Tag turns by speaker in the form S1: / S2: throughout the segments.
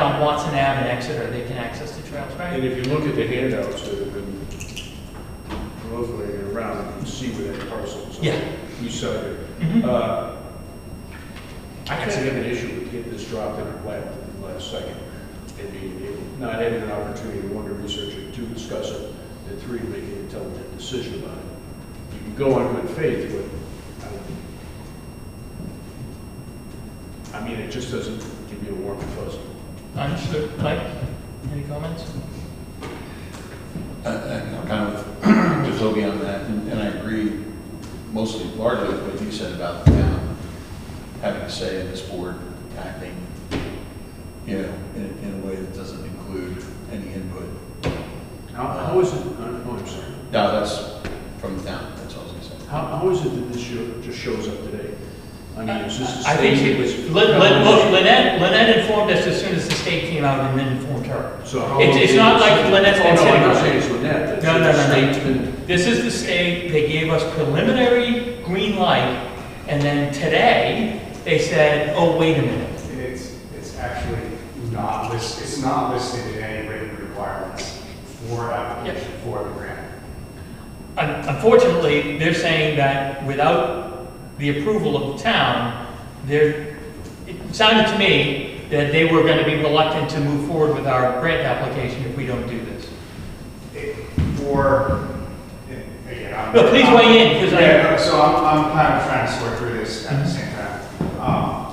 S1: on Watson Ave and Exeter, they can access the trails,
S2: And
S1: right?
S2: if you look at the handouts that have been proliferating around, you can see where that parcel is.
S1: Yeah.
S2: You saw it.
S1: Mhm.
S2: Uh, I actually have an issue with getting this dropped in our lap at the last second and being able, not having an opportunity to one, to research it, two, discuss it, and three, make an intelligent decision about it. You can go on good faith, but I don't- I mean, it just doesn't give you a warm and fuzzy.
S1: Understood. Mike, any comments?
S3: I- I'm kind of just looking on that, and and I agree mostly largely with what you said about the town having a say in this board acting, you know, in in a way that doesn't include any input.
S2: How, how is it, oh, I'm sorry.
S3: No, that's from the town, that's all I was gonna say.
S2: How, how is it that this show, just shows up today? I mean, is this the
S1: I think she
S2: same
S1: was,
S2: as?
S1: Lin- Lin- look, Lynette, Lynette informed us as soon as the state came out and then informed her.
S2: So how?
S1: It's-
S2: long
S1: it's
S2: did
S1: not
S2: it-
S1: like Lynette's been
S2: Oh, no,
S1: sitting
S2: I'm
S1: on
S2: not
S1: it.
S2: saying it's Lynette.
S1: No, no,
S2: that's-
S1: no, no.
S2: that's been-
S1: This is the state, they gave us preliminary green light, and then today, they said, oh, wait a minute.
S4: It's, it's actually not listed, it's not listed in any written requirements for application for the grant.
S1: Un- Unfortunately, they're saying that without the approval of the town, they're, it sounded to me that they were gonna be reluctant to move forward with our grant application if we don't do this.
S4: It- For, and again, I'm.
S1: No, please weigh in, 'cause I-
S4: Yeah, no, so I'm, I'm kind of trying to sort through this at the same time. Um,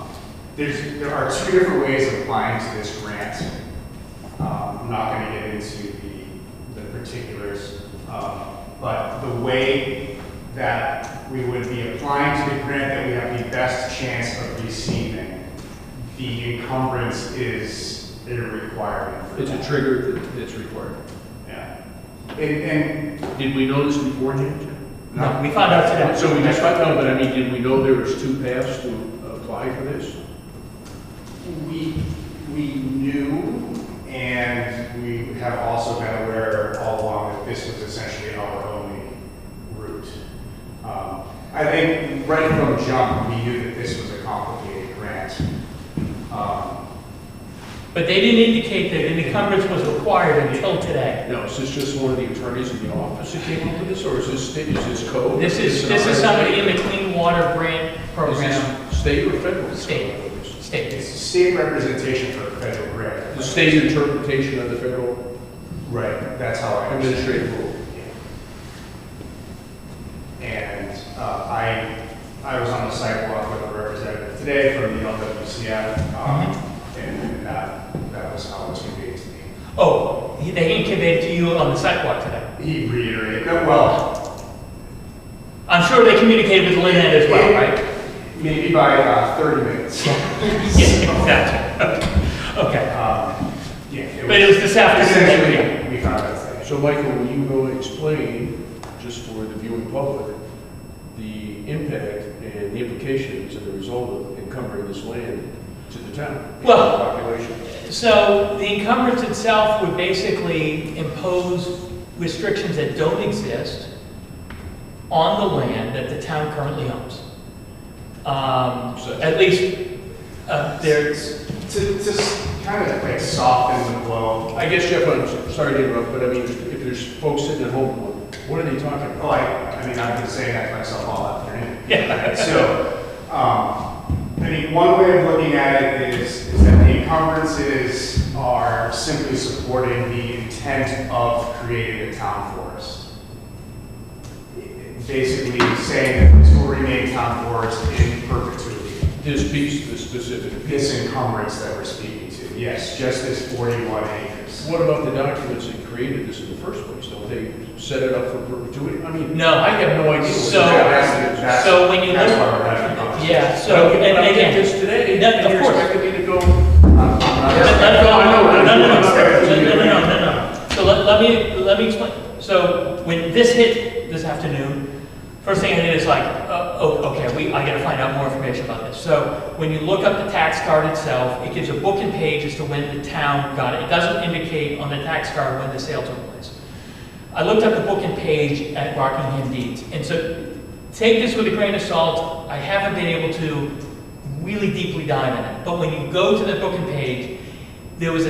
S4: There's, there are two different ways of applying to this grant. Um, I'm not gonna get into the, the particulars, um, but the way that we would be applying to the grant that we have the best chance of receiving, the encumbrance is a requirement for
S2: It's a
S4: that.
S2: trigger that- that's required.
S4: Yeah. And, and.
S2: Did we know this beforehand? Jim?
S1: No, we found out today.
S2: So we just found out, but I mean, did we know there was two paths to apply for this?
S4: We, we knew, and we have also been aware all along that this was essentially our only route. Um, I think right from jump, we knew that this was a complicated grant. Um,
S1: But they didn't indicate that an encumbrance was required until today.
S2: Now, is this just one of the attorneys in the office that came up with this, or is this, sta- is this code?
S1: This is, this is somebody in the Clean Water Grant
S2: Is
S1: Program,
S2: this state or federal?
S1: State. state.
S4: It's state representation for a federal grant.
S2: The state interpretation of the federal
S4: Right, that's how I understand it.
S2: administrative rule.
S4: And uh, I, I was on the sidewalk with a representative today from the LWCF, um, and that, that was how it was conveyed to me.
S1: Oh, he- they incubated to you on the sidewalk today.
S4: He reiterated, no, well,
S1: I'm sure they communicated with Lynette as well, right?
S4: maybe by uh, 30 minutes. So,
S1: Yeah, exactly. Okay.
S4: um, Yeah.
S1: But it was this afternoon. yeah.
S4: Essentially, we found out today.
S2: So Michael, will you go explain, just for the viewing public, the impact and the implications and the result of encumbering this land to the town?
S1: Well-
S2: Population.
S1: So the encumbrance itself would basically impose restrictions that don't exist on the land that the town currently owns. Um,
S2: So-
S1: At least, uh, there's,
S4: There's, to, to s- kind of like soften the blow,
S2: I guess Jeff, I'm sorry to interrupt, but I mean, if there's folks sitting at home, what are they talking about?
S4: Oh, I, I mean, I've been saying that to myself all afternoon.
S1: Yeah.
S4: So, um, I mean, one way of looking at it is, is that the encumbrances are simply supporting the intent of creating a town forest. Basically saying that this will remain town forest in perpetuity,
S2: This piece, this specific piece.
S4: this encumbrance that we're speaking to, yes, just this forty-one acres.
S2: What about the documents that created this in the first place? Don't they set it up for perpetuity? I mean,
S1: No.
S2: I have no idea. what
S1: So-
S2: the
S4: That-
S2: documents-
S4: that's- that's-
S1: so when you
S4: That's
S1: look-
S4: why we're having a conversation.
S1: yeah, so,
S2: But
S1: and
S2: I
S1: again.
S2: did this today,
S1: No,
S2: and
S1: of
S2: you're
S1: course.
S2: expecting me to go
S4: I'm- I'm not-
S1: Let- let-
S2: No, I know, I know.
S1: No, no, no,
S2: I'm
S1: no,
S2: sorry.
S1: no, no, no, no, no. So let, let me, let me explain. So when this hit this afternoon, first thing I did is like, uh, oh, okay, we, I gotta find out more information about this. So when you look up the tax card itself, it gives a book and page as to when the town got it. It doesn't indicate on the tax card when the sale took place. I looked up the book and page at Rockingham Deeds, and so take this with a grain of salt. I haven't been able to really deeply dive in it, but when you go to the book and page, there was a